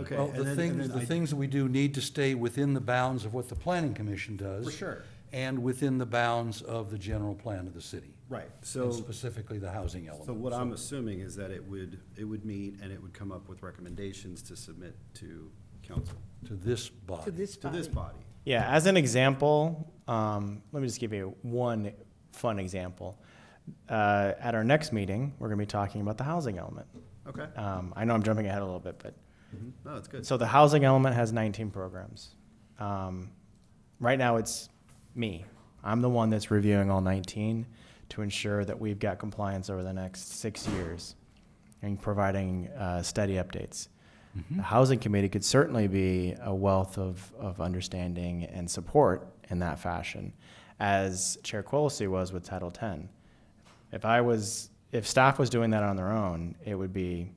Okay, Well, and the then- and things, then the I- things that we do need to stay within the bounds of what the planning commission does. For sure. And within the bounds of the general plan of the city. Right, And so, specifically the housing so element. what I'm assuming is that it would, it would meet and it would come up with recommendations to submit to council, To this body. to this to body. this body. Yeah, as an example, um, let me just give you one fun example. Uh, at our next meeting, we're going to be talking about the housing element. Okay, Um, I know I'm jumping ahead a little bit, but no, that's good. so the housing element has 19 programs. Um, right now, it's me. I'm the one that's reviewing all 19 to ensure that we've got compliance over the next six years and providing uh, steady updates. Mm-hmm. The housing committee could certainly be a wealth of, of understanding and support in that fashion, as Chair Quillisi was with Title 10. If I was, if staff was doing that on their own, it would be,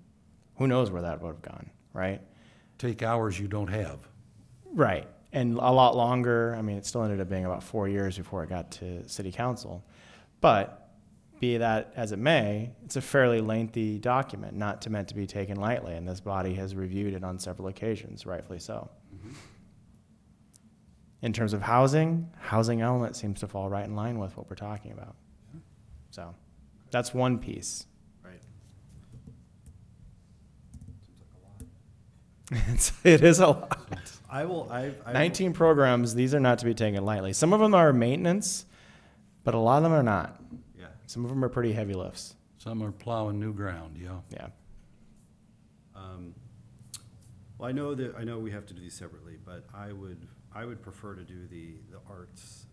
who knows where that would have gone, right? Take hours you don't have. Right. And a lot longer. I mean, it still ended up being about four years before it got to city council. But be that as it may, it's a fairly lengthy document, not to meant to be taken lightly. And this body has reviewed it on several occasions, rightfully so. In terms of housing, housing element seems to fall right in line with what we're talking about. So that's one piece. Right. It's, it is a lot. I will, I, I. will- 19 programs, these are not to be taken lightly. Some of them are maintenance, but a lot of them are not. Yeah, Some of them are pretty heavy lifts. Some are plowing new ground, yeah. Yeah. um, well, I know that, I know we have to do these separately, but I would, I would prefer to do the, the arts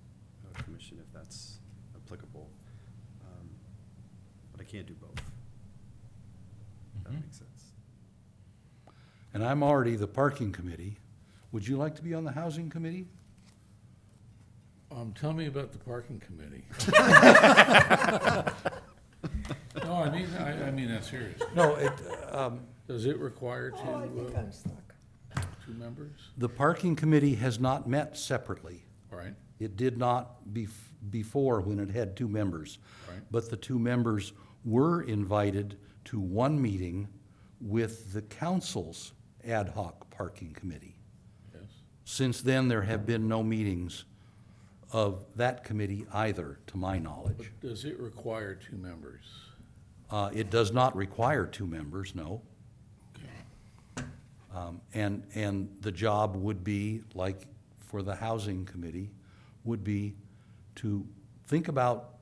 uh, commission if that's applicable. Um, But I can't do both. If that makes sense. And I'm already the parking committee. Would you like to be on the housing committee? Um, tell me about the parking committee. No, I mean, I, I mean that serious. No, it, um, Does it require two, Oh, I think uh, I'm stuck. two members? the parking committee has not met separately. All right, It did not bef- before when it had two members. Right. But the two members were invited to one meeting with the council's ad hoc parking committee. yes. Since then, there have been no meetings of that committee either, to my But knowledge. does it require two members? Uh, it does not require two members, no. Um, and, and the job would be, like for the housing committee, would be to think about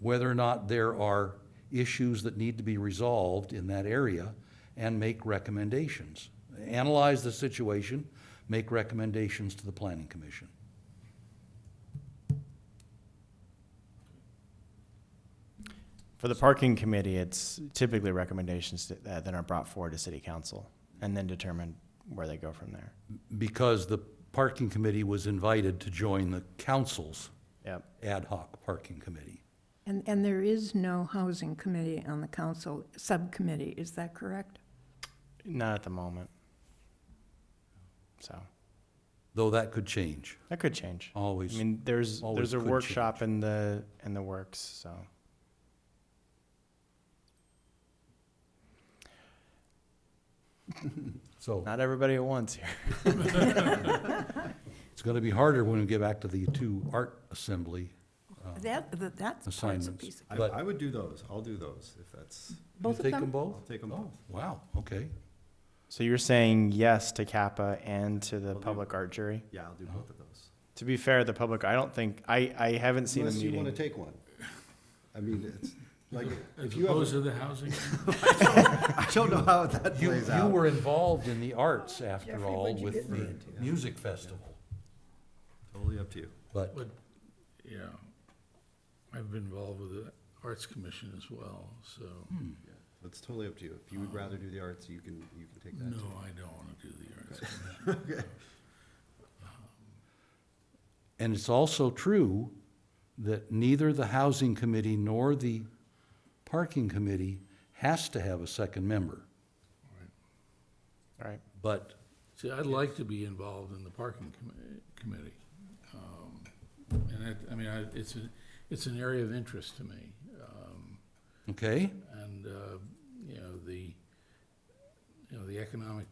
whether or not there are issues that need to be resolved in that area and make recommendations. Analyze the situation, make recommendations to the planning commission. For the parking committee, it's typically recommendations that, that are brought forward to city council and then determine where they go from there. Because the parking committee was invited to join the council's Yep. ad hoc parking committee. And, and there is no housing committee on the council, subcommittee, is that correct? Not at the moment. So though that could change, that could change. I always. mean, there's, always there's a could workshop in the, in the works, so. So Not everybody at once here. it's going to be harder when we get back to the two art assembly. uh, That, that- that's part's a Assignments. piece of. I, But- I would do those, I'll do those if that's, You Both of take them them? both? I'll take them Oh, both. Wow, okay. So you're saying yes to Kappa and to the do- public art jury? Yeah, I'll do both of those. To be fair, the public, I don't think, I, I haven't seen a Unless you meeting. want to take one. I mean, it's, like, if As you opposed have, to the housing? I don't know how that You, plays you out. were involved in the arts after Jeffrey, all what'd you with get the music festival, Totally up to you. but But, yeah, I've been involved with the Arts Commission as well, so, It's totally up to you. If you would rather do the arts, you can, you can take that no, too. I don't wanna do the Arts Commission. And it's also true that neither the housing committee nor the parking committee has to have a second member. Right. But See, I'd like to be involved in the parking commi- committee. Um, And it, I mean, I, it's, a- it's an area of interest to me. Um, Okay, And, uh, you know, the, you know, the economic